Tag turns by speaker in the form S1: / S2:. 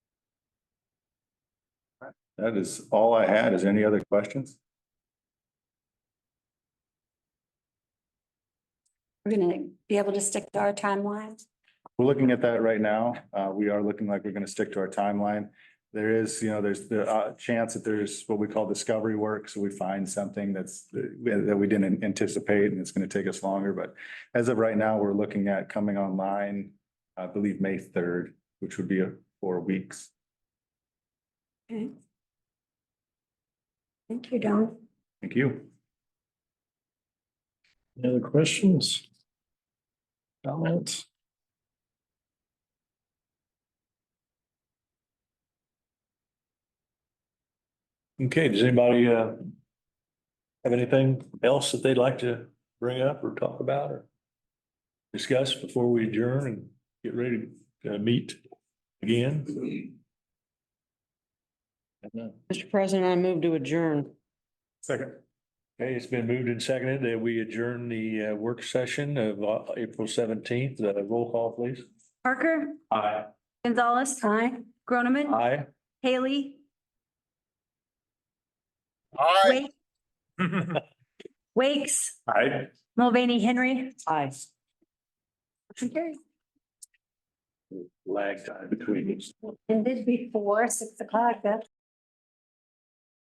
S1: That is all I had. Is any other questions?
S2: We're gonna be able to stick to our timelines.
S1: We're looking at that right now. Uh, we are looking like we're gonna stick to our timeline. There is, you know, there's the uh chance that there's what we call discovery work, so we find something that's that we didn't anticipate and it's gonna take us longer, but as of right now, we're looking at coming online, I believe, May third, which would be uh, four weeks.
S2: Okay. Thank you, Don.
S1: Thank you.
S3: Any other questions? Comments? Okay, does anybody uh have anything else that they'd like to bring up or talk about or discuss before we adjourn and get ready to uh, meet again?
S4: Mr. President, I move to adjourn.
S3: Second. Okay, it's been moved and seconded that we adjourn the uh, work session of uh, April seventeenth. Uh, Roll call, please.
S5: Parker,
S3: Aye.
S5: Gonzalez,
S2: Hi.
S5: Groneman,
S3: Aye.
S5: Haley,
S6: Aye.
S5: Wake, Wakes,
S3: Aye.
S5: Mulvaney, Henry.
S4: Aye.
S5: Okay.
S3: Lag time between.
S2: Ended before six o'clock, that's